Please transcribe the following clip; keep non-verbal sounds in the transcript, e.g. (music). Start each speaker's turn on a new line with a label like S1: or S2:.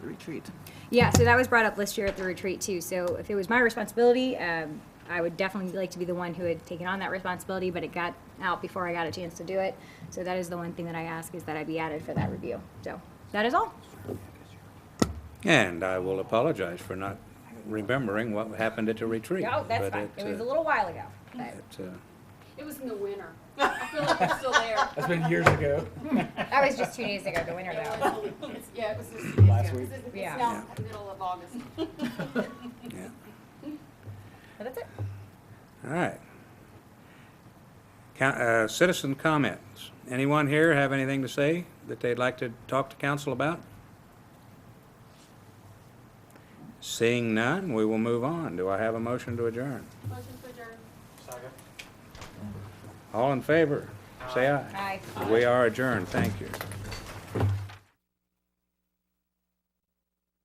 S1: retreat.
S2: Yeah, so that was brought up last year at the retreat too. So if it was my responsibility, um, I would definitely like to be the one who had taken on that responsibility, but it got out before I got a chance to do it. So that is the one thing that I ask is that I be added for that review. So that is all.
S3: And I will apologize for not remembering what happened at the retreat.
S2: No, Oh, that's
S3: but
S2: fine. It was
S3: uh,
S2: a little while ago. but-
S3: it, uh,
S4: It was in the winter. I feel like we're
S2: (laughs)
S4: still there.
S5: That's been years ago.
S2: That was just two days ago, the winter
S4: It (laughs)
S2: though. Oh,
S4: was- it's- Yeah, it was just, it's,
S5: Last
S4: yeah,
S5: week.
S4: it's- it's
S2: Yeah.
S4: now the middle of August.
S3: yeah.
S2: But that's it.
S3: All right. Coun- uh, Citizen comments. Anyone here have anything to say that they'd like to talk to council about? Seeing none, we will move on. Do I have a motion to adjourn?
S4: Motion to adjourn.
S3: All in favor, say aye.
S2: Bye.
S3: We are adjourned. Thank you.